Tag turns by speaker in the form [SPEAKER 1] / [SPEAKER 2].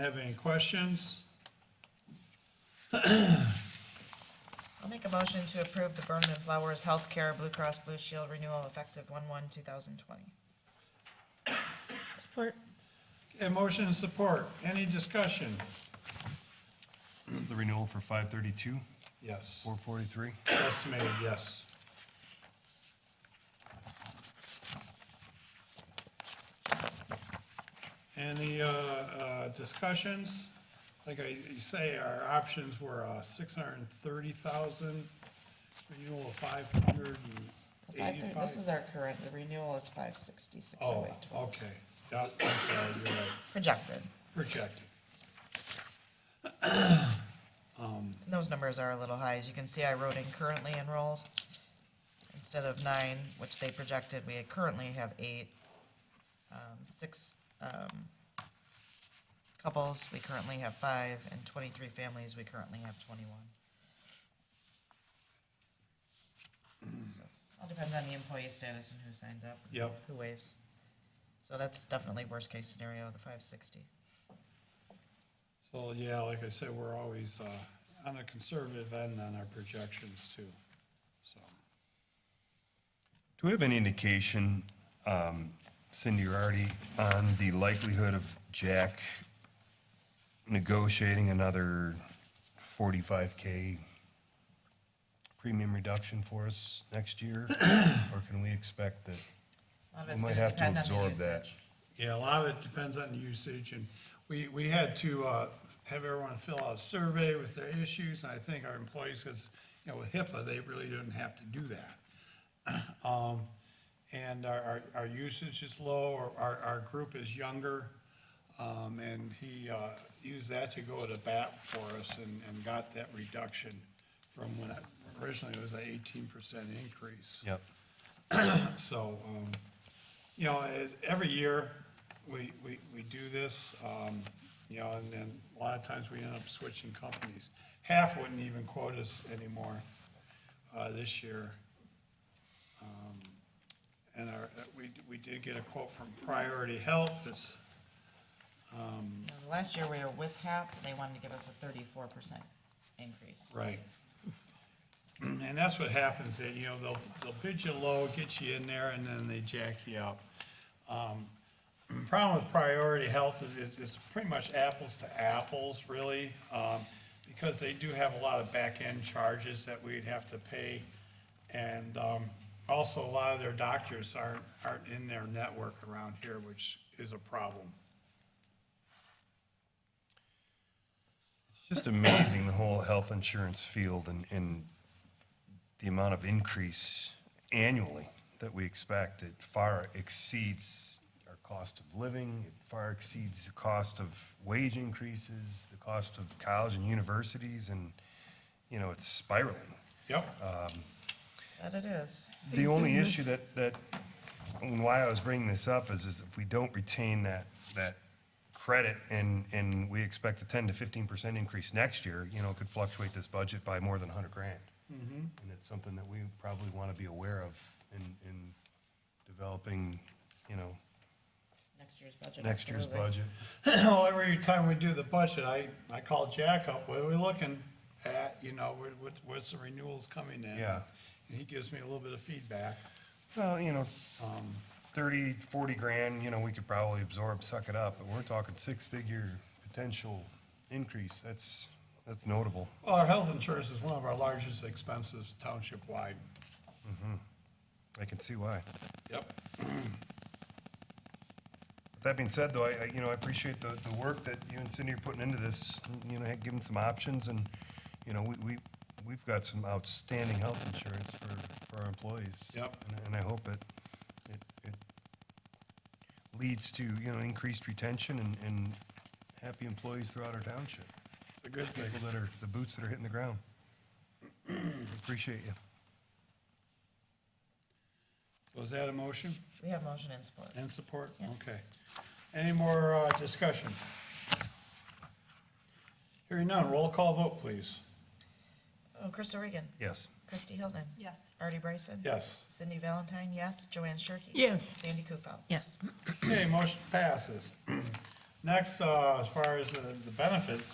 [SPEAKER 1] Have any questions?
[SPEAKER 2] I'll make a motion to approve the Berman and Flowers Healthcare Blue Cross Blue Shield renewal effective one one two thousand twenty.
[SPEAKER 3] Support.
[SPEAKER 1] A motion and support, any discussion?
[SPEAKER 4] The renewal for five thirty-two,
[SPEAKER 1] Yes,
[SPEAKER 4] four forty-three.
[SPEAKER 1] yes, made, yes. Any, uh, uh, discussions? Like I you say, our options were, uh, six hundred and thirty thousand, renewal of five hundred and eighty-five.
[SPEAKER 2] This is our current, the renewal is five sixty, six
[SPEAKER 1] Oh,
[SPEAKER 2] oh eight twelve,
[SPEAKER 1] okay, Yeah, I'm sorry, you're right,
[SPEAKER 2] projected.
[SPEAKER 1] projected.
[SPEAKER 2] And Those numbers are a little high, as you can see, I wrote in currently enrolled. Instead of nine, which they projected, we currently have eight, um, six, um, couples, we currently have five, and twenty-three families, we currently have twenty-one. So, All depends on the employee status and who signs up. and
[SPEAKER 1] Yep.
[SPEAKER 2] Who waives. So that's definitely worst-case scenario, the five sixty.
[SPEAKER 1] So, yeah, like I said, we're always uh, on the conservative end on our projections too, so.
[SPEAKER 4] Do we have any indication, um, Cindy or Artie, on the likelihood of Jack negotiating another forty-five K premium reduction for us next year? Or can we expect that?
[SPEAKER 2] A lot of
[SPEAKER 4] We
[SPEAKER 2] it's
[SPEAKER 4] might
[SPEAKER 2] gonna
[SPEAKER 4] have to
[SPEAKER 2] depend on the
[SPEAKER 4] absorb that.
[SPEAKER 2] usage.
[SPEAKER 1] Yeah, a lot of it depends on the usage, and we, we had to uh, have everyone fill out a survey with their issues, and I think our employees, because, you know, with HIPAA, they really didn't have to do that. Um, And our, our- our usage is low, our- our, our group is younger, um, and he uh, used that to go to bat for us and, and got that reduction from when I- originally it was an eighteen percent increase.
[SPEAKER 4] Yep.
[SPEAKER 1] So, um, you know, as, every year, we, we, we do this, um, you know, and then a lot of times we end up switching companies. Half wouldn't even quote us anymore, uh, this year. Um, And our, we, we did get a quote from Priority Health, that's,
[SPEAKER 2] Now, Last year, we were with HAP, and they wanted to give us a thirty-four percent increase.
[SPEAKER 1] Right. And that's what happens, that, you know, they'll, they'll bid you low, get you in there, and then they jack you up. Um, Problem with priority health is it's, it's pretty much apples to apples, really, um, because they do have a lot of back-end charges that we'd have to pay. And, um, also a lot of their doctors aren't, aren't in their network around here, which is a problem.
[SPEAKER 4] It's just amazing, the whole health insurance field and, and the amount of increase annually that we expect. It far exceeds our cost of living, it far exceeds the cost of wage increases, the cost of college and universities, and, you know, it's spiraling.
[SPEAKER 1] Yep.
[SPEAKER 2] That it is.
[SPEAKER 4] The only issue that, that, and why I was bringing this up is, is if we don't retain that, that credit and, and we expect a ten to fifteen percent increase next year, you know, it could fluctuate this budget by more than a hundred grand. And it's something that we probably want to be aware of in, in developing, you know,
[SPEAKER 2] Next year's budget.
[SPEAKER 4] next year's
[SPEAKER 2] absolutely.
[SPEAKER 4] budget.
[SPEAKER 1] Well, every time we do the budget, I, I call Jack up, what are we looking at, you know, what, what, what's the renewals coming in?
[SPEAKER 4] Yeah.
[SPEAKER 1] And he gives me a little bit of feedback.
[SPEAKER 4] Well, you know, thirty, forty grand, you know, we could probably absorb, suck it up, but we're talking six-figure potential increase. That's, that's notable.
[SPEAKER 1] Well, our health insurance is one of our largest expenses township-wide.
[SPEAKER 4] I can see why.
[SPEAKER 1] Yep.
[SPEAKER 4] That being said, though, I, I- you know, I appreciate the, the work that you and Cindy are putting into this, you know, giving some options, and, you know, we, we, we've got some outstanding health insurance for, for our employees.
[SPEAKER 1] Yep.
[SPEAKER 4] And- And I hope it, it, it leads to, you know, increased retention and, and happy employees throughout our township.
[SPEAKER 1] It's a good thing.
[SPEAKER 4] People that are, the boots that are hitting the ground. Appreciate you.
[SPEAKER 1] Was that a motion
[SPEAKER 2] We have motion and support.
[SPEAKER 1] and support?
[SPEAKER 2] Yeah.
[SPEAKER 1] Okay. Any more, uh, discussion? Hearing none, roll call vote, please.
[SPEAKER 2] Oh, Chris Regan.
[SPEAKER 4] Yes.
[SPEAKER 2] Christy Hilton.
[SPEAKER 5] Yes.
[SPEAKER 2] Artie Bryson.
[SPEAKER 1] Yes.
[SPEAKER 2] Cindy Valentine, yes. Joanne Shirkey.
[SPEAKER 3] Yes.
[SPEAKER 2] Sandy Kupel.
[SPEAKER 3] Yes.
[SPEAKER 1] Okay, motion passes. Next, uh, as far as the the benefits,